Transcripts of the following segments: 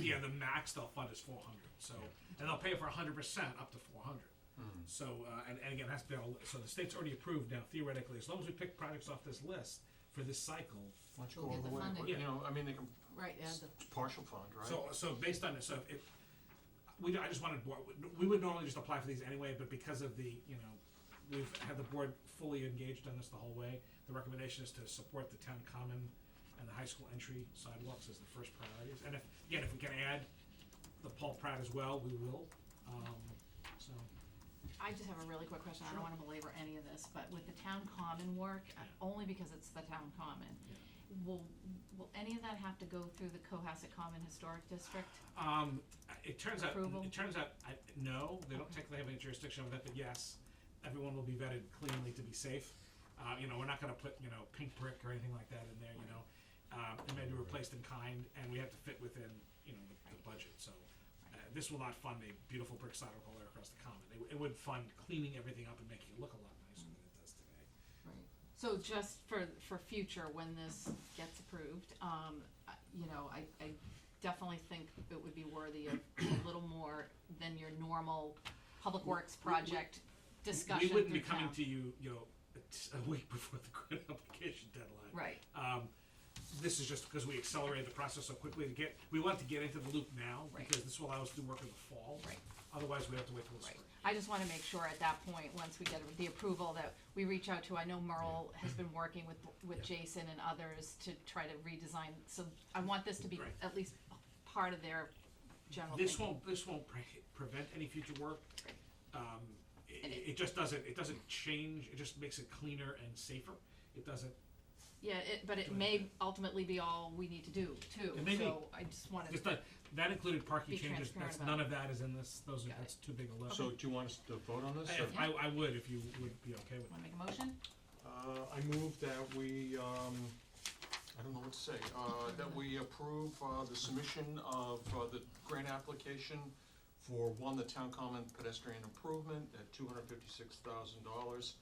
yeah, the max they'll fund is 400. So, and they'll pay for 100 percent up to 400. So, uh, and, and again, that's been all, so the state's already approved now. Theoretically, as long as we pick projects off this list for this cycle, Why don't you Go go all get the the way, funding. you know, I mean, they can, Right, add the, it's partial fund, right? So, so based on this, so if, we, don't- I just wanted, board- we would normally just apply for these anyway, but because of the, you know, we've had the board fully engaged on this the whole way, the recommendation is to support the town common and the high school entry sidewalks as the first priorities, and if, again, if we can add the Paul Pratt as well, we will, um, so, I just have a really quick question, I don't wanna belabor any of this, but with the town common work, uh, Yeah. only because it's the town common, Yeah. will, will any of that have to go through the Cohasset Common Historic District? um, I- it turns out, Approval? it turns out, I, no, they don't technically have any jurisdiction over that, but yes, everyone will be vetted cleanly to be safe. Uh, you know, we're not gonna put, you know, pink brick or anything like that in there, you know. Um, it may be replaced in kind, and we have to fit within, you know, the, the budget, so. Uh, this will not fund a beautiful brick sidewalk all the way across the common. It, w- it would fund cleaning everything up and making it look a lot nicer than it does today. Right. So just for, for future, when this gets approved, um, I- you know, I, I definitely think it would be worthy of a little more than your normal public works we- we- project discussion We wouldn't be through town. coming to you, you know, it's a week before the grant application deadline. Right, Um, this is just because we accelerated the process so quickly to get, we want to get into the loop now, Right. because this will allow us to do work in the fall. Right. Otherwise, we have to wait till the right. spring. I just wanna make sure at that point, once we get the approval, that we reach out to, I know Merle has been working with, with Jason and others to try to redesign, so I want this to be Right. at least part of their general This thinking. won't, this won't pre- prevent any future work. Right. Um, it, And it- it just doesn't, it doesn't change, it just makes it cleaner and safer. It doesn't, Yeah, it, but it Doing may that. ultimately be all we need to do too, It may be. so I just wanted, it's not, that included parking Be changes, transparent that's, about none of that is in this, those are, Got it. that's too big a list. So do you want us to vote on this? I- or- if- I, I would if you would be okay with it. wanna make a motion? Uh, I move that we, um, I don't know what to say, uh, that we approve, uh, the submission of, uh, the grant application for, one, the town common pedestrian improvement at two hundred fifty-six thousand dollars,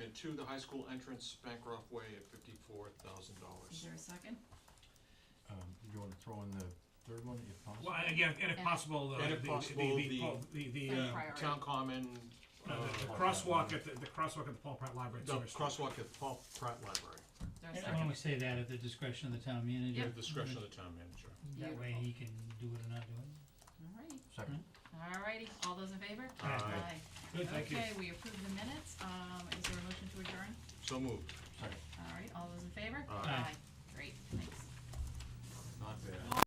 and two, the high school entrance Bancroft Way at fifty-four thousand Is dollars. there a second? Um, you wanna throw in the third one if possible? Well, and again, and if And- possible, uh, And the, if the, possible, the, the, the- Paul- the, the, And uh, priority. Town common, no, the- the uh, crosswalk at, the the crosswalk at the Paul Pratt Library. the Service. crosswalk at Paul Pratt Library, Is there a I second? wanna say that at the discretion of the town at manager. the discretion of the town manager. That way he can do it or not do it. Alright, Second. alrighty, all those in favor? Aye. Good, thank you. Okay, we approve the minutes, um, is there a motion to adjourn? So moved. Second. Alright, all those in favor? Aye. Aye. Great, thanks. Not bad. All